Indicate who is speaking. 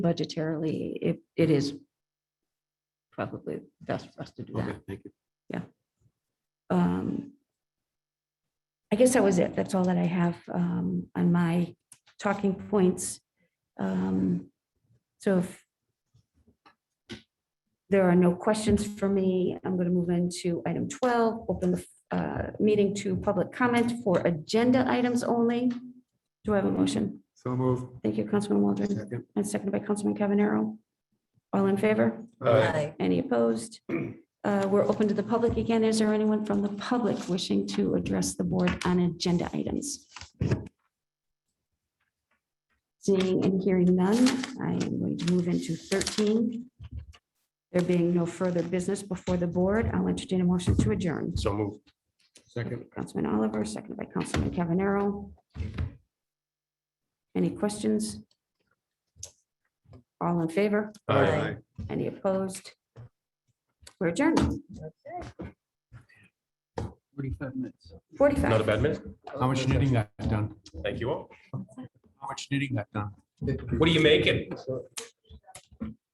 Speaker 1: budgetarily, it, it is probably best for us to do
Speaker 2: Okay,
Speaker 1: that.
Speaker 2: thank you.
Speaker 1: Um, I guess that was it. That's all that I have um, on my talking points. Um, So if there are no questions for me, I'm going to move into item 12, open the uh, meeting to public comment for agenda items only. Do I have a motion?
Speaker 2: So move.
Speaker 1: Thank you, Councilman Waldron,
Speaker 2: Second.
Speaker 1: and seconded by Councilman Cavanero. All in favor?
Speaker 3: Aye.
Speaker 1: Any opposed? Uh, We're open to the public again. Is there anyone from the public wishing to address the board on agenda items? Seeing and hearing none, I am going to move into 13. There being no further business before the board, I'll entertain a motion to adjourn.
Speaker 2: So move. Second.
Speaker 1: Councilman Oliver, seconded by Councilman Cavanero. Any questions? All in favor?
Speaker 2: Uh,
Speaker 3: Aye.
Speaker 1: Any opposed? We're adjourned.
Speaker 4: Forty-five minutes.
Speaker 2: Not a
Speaker 1: 45.
Speaker 2: bad minute.
Speaker 4: How much knitting got done?
Speaker 2: Thank you all.
Speaker 4: How much knitting got done?
Speaker 2: What are you making?